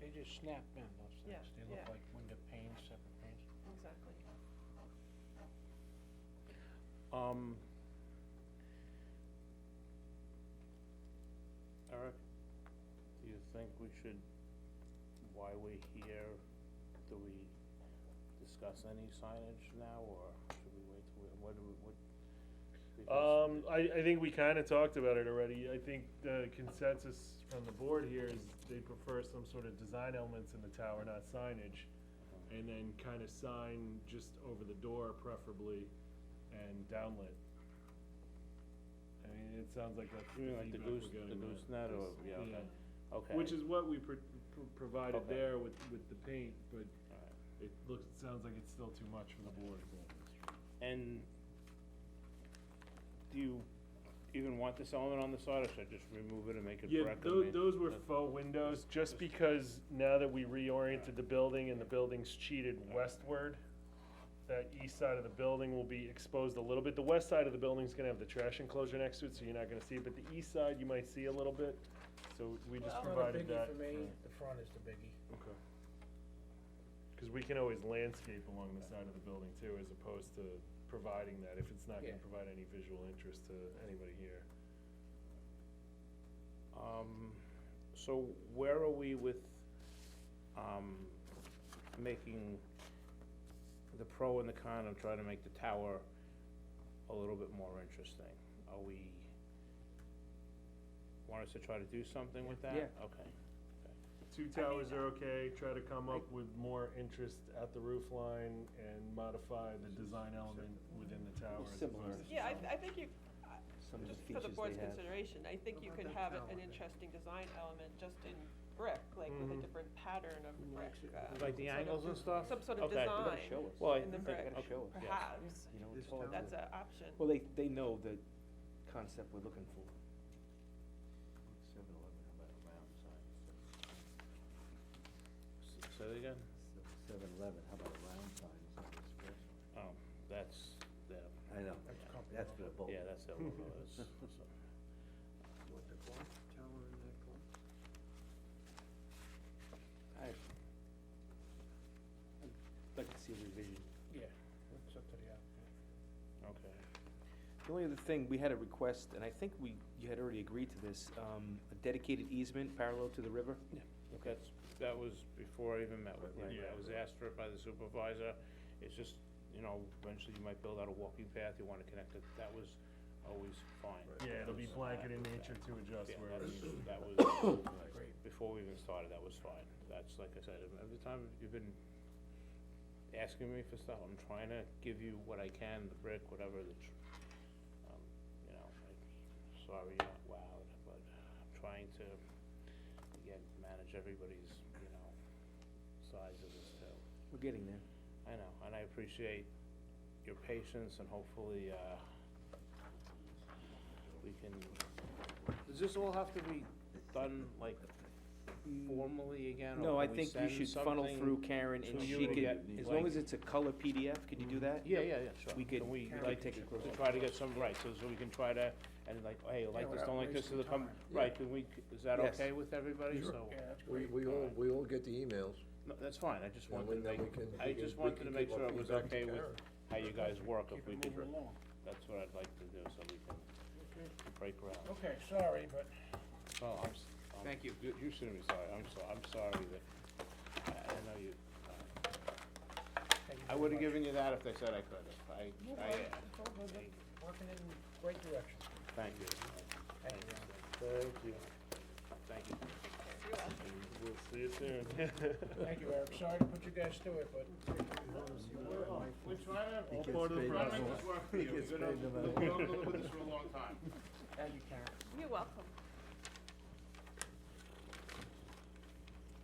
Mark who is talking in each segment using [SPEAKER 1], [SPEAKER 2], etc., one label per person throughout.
[SPEAKER 1] They just snap in, those
[SPEAKER 2] Yeah,
[SPEAKER 1] things. They look
[SPEAKER 2] yeah.
[SPEAKER 1] like window panes, separate panes.
[SPEAKER 2] Exactly.
[SPEAKER 1] Um. Eric, do you think we should, while we're here, do we discuss any signage now, or should we wait till, what do we, what? because
[SPEAKER 3] Um, I, I think we kinda talked about it already, I think the consensus from the board here is they prefer some sort of design elements in the tower, not signage. And then kinda sign just over the door preferably, and downlit. I mean, it sounds like that's
[SPEAKER 1] You
[SPEAKER 3] the
[SPEAKER 1] mean like the
[SPEAKER 3] feedback we're
[SPEAKER 1] goose, the
[SPEAKER 3] getting. right?
[SPEAKER 1] goose net, or, yeah,
[SPEAKER 3] Yeah.
[SPEAKER 1] okay, okay.
[SPEAKER 3] Which is what we pro- pro- provided
[SPEAKER 1] Okay.
[SPEAKER 3] there with, with the paint, but
[SPEAKER 1] All right.
[SPEAKER 3] it looks, it sounds like it's still too much for the board.
[SPEAKER 1] And do you even want this element on the side, or should I just remove it and make it
[SPEAKER 3] Yeah,
[SPEAKER 1] brick? I
[SPEAKER 3] tho-
[SPEAKER 1] mean,
[SPEAKER 3] those were
[SPEAKER 1] that's-
[SPEAKER 3] faux windows, just because now that we reoriented the building and the building's cheated westward, that east side of the building will be exposed a little bit. The west side of the building's gonna have the trash enclosure next to it, so you're not gonna see it, but the east side you might see a little bit, so we just provided that.
[SPEAKER 4] the front is the biggie.
[SPEAKER 3] Okay. Cause we can always landscape along the side of the building too, as opposed to providing that, if it's not
[SPEAKER 4] Yeah.
[SPEAKER 3] gonna provide any visual interest to anybody here.
[SPEAKER 1] Um, so where are we with, um, making the pro and the con of trying to make the tower a little bit more interesting? Are we, want us to try to do something with that?
[SPEAKER 4] Yeah.
[SPEAKER 1] Okay.
[SPEAKER 3] Two towers are okay, try to come up with more interest at the roof line and modify the design element within the tower. as
[SPEAKER 5] Similar.
[SPEAKER 3] opposed to
[SPEAKER 2] Yeah,
[SPEAKER 3] some-
[SPEAKER 2] I, I think you, I-
[SPEAKER 5] Some of the
[SPEAKER 2] just for the
[SPEAKER 5] features
[SPEAKER 2] board's
[SPEAKER 5] they have.
[SPEAKER 2] consideration, I think you
[SPEAKER 4] How
[SPEAKER 2] could
[SPEAKER 4] about
[SPEAKER 2] have
[SPEAKER 4] that
[SPEAKER 2] it- an
[SPEAKER 4] tower?
[SPEAKER 2] interesting design element just in brick, like with a
[SPEAKER 3] Mhm.
[SPEAKER 5] Mm-hmm.
[SPEAKER 2] different pattern of brick.
[SPEAKER 4] Actually,
[SPEAKER 2] uh,
[SPEAKER 1] Like the
[SPEAKER 2] sort of-
[SPEAKER 1] angles and stuff?
[SPEAKER 2] Some sort of
[SPEAKER 1] Okay.
[SPEAKER 5] They gotta
[SPEAKER 2] Fine.
[SPEAKER 5] show us.
[SPEAKER 1] Well, I
[SPEAKER 2] in the
[SPEAKER 5] They
[SPEAKER 2] brick,
[SPEAKER 5] gotta show us,
[SPEAKER 2] Perhaps,
[SPEAKER 5] you know,
[SPEAKER 4] This
[SPEAKER 5] it's all.
[SPEAKER 4] town.
[SPEAKER 2] that's an option.
[SPEAKER 5] Well, they, they know the concept we're looking for.
[SPEAKER 4] Seven eleven, how about around sign?
[SPEAKER 1] S- Say that again?
[SPEAKER 4] Seven eleven, how about a round sign instead of a square sign?
[SPEAKER 1] Oh, that's, that,
[SPEAKER 4] I know,
[SPEAKER 1] That's Yeah.
[SPEAKER 4] that's for the bulk.
[SPEAKER 1] yeah, that's that logo, that's, so.
[SPEAKER 4] What the clock tower in that clock?
[SPEAKER 5] I, I'd like to see a revision.
[SPEAKER 1] Yeah, it's up to the applicant. Okay.
[SPEAKER 5] The only other thing, we had a request, and I think we, you had already agreed to this, um, a dedicated easement parallel to the river.
[SPEAKER 1] That's, that was before I even met with
[SPEAKER 3] Right,
[SPEAKER 1] him,
[SPEAKER 3] right.
[SPEAKER 1] I was asked for it by the supervisor, it's just, you know, eventually you might build out a walking path, you wanna connect it, that was always fine.
[SPEAKER 3] Yeah, it'll be blanket in nature to adjust
[SPEAKER 1] Yeah,
[SPEAKER 3] wherever.
[SPEAKER 1] that's,
[SPEAKER 3] you-
[SPEAKER 1] that was, before we even started, that was fine, that's, like I said, every time you've been asking me for stuff, I'm trying to give you what I can, the brick, whatever, the, tr- um, you know, I'm sorry, you're not wowed, but I'm trying to, again, manage everybody's, you know, size of this too.
[SPEAKER 5] We're getting there.
[SPEAKER 1] I know, and I appreciate your patience and hopefully, uh, we can, does this all have to be done like formally again? or
[SPEAKER 5] No, I
[SPEAKER 1] can we
[SPEAKER 5] think you
[SPEAKER 1] send
[SPEAKER 5] should funnel
[SPEAKER 1] something?
[SPEAKER 5] through Karen and
[SPEAKER 1] to
[SPEAKER 5] she
[SPEAKER 1] you to
[SPEAKER 5] could,
[SPEAKER 1] get,
[SPEAKER 5] as long as
[SPEAKER 1] like-
[SPEAKER 5] it's a color PDF, could you do that?
[SPEAKER 1] Yeah, yeah, yeah, sure.
[SPEAKER 5] We could-
[SPEAKER 1] Can
[SPEAKER 5] we could
[SPEAKER 1] like,
[SPEAKER 5] take a close
[SPEAKER 1] to
[SPEAKER 5] look.
[SPEAKER 1] Try to get some, right, so, so we can try to, and like, hey, like this, don't like this, is the com, right, can we, is that
[SPEAKER 5] Yes.
[SPEAKER 1] okay with everybody, so?
[SPEAKER 6] We, we all, we all get the emails.
[SPEAKER 1] No, that's fine, I just
[SPEAKER 6] Yeah,
[SPEAKER 1] wanted
[SPEAKER 6] we-
[SPEAKER 1] to
[SPEAKER 6] then
[SPEAKER 1] make,
[SPEAKER 6] we can-
[SPEAKER 1] I
[SPEAKER 6] we can-
[SPEAKER 1] just
[SPEAKER 6] we
[SPEAKER 1] wanted to
[SPEAKER 6] can
[SPEAKER 1] make
[SPEAKER 6] give
[SPEAKER 1] sure
[SPEAKER 6] our
[SPEAKER 1] it was
[SPEAKER 6] feedback to
[SPEAKER 1] okay with
[SPEAKER 6] Karen.
[SPEAKER 1] how you guys work, if
[SPEAKER 4] Keep
[SPEAKER 1] we
[SPEAKER 4] it
[SPEAKER 1] could,
[SPEAKER 4] moving along.
[SPEAKER 1] that's what I'd like to do, so we can break ground.
[SPEAKER 4] Okay, sorry, but.
[SPEAKER 1] Well, I'm, s- I'm-
[SPEAKER 5] Thank you.
[SPEAKER 1] You shouldn't be sorry, I'm so, I'm sorry that, I, I know you, I would've given you that if they said I could, if I, I, uh,
[SPEAKER 4] Working in the right direction.
[SPEAKER 1] thank you.
[SPEAKER 4] Thank you.
[SPEAKER 1] Thank you. Thank you.
[SPEAKER 3] We'll see it soon.
[SPEAKER 4] Thank you, Eric, sorry to put you guys through it, but.
[SPEAKER 1] We're trying to,
[SPEAKER 3] All part of the
[SPEAKER 1] trying to
[SPEAKER 3] process.
[SPEAKER 1] make this work for you, we've been, on- we've been on with this for a long time.
[SPEAKER 4] Thank you, Karen.
[SPEAKER 2] You're welcome.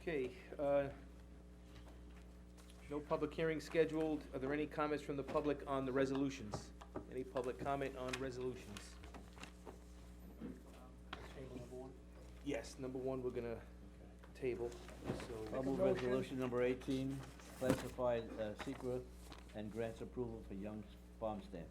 [SPEAKER 5] Okay, uh, no public hearing scheduled. Are there any comments from the public on the resolutions? Any public comment on resolutions? Yes, number one, we're gonna table, so, uh,
[SPEAKER 4] Make
[SPEAKER 7] I'll
[SPEAKER 4] a
[SPEAKER 7] move
[SPEAKER 4] motion.
[SPEAKER 7] resolution number eighteen, classified, uh, secret and grants approval for Young's Farm Stand.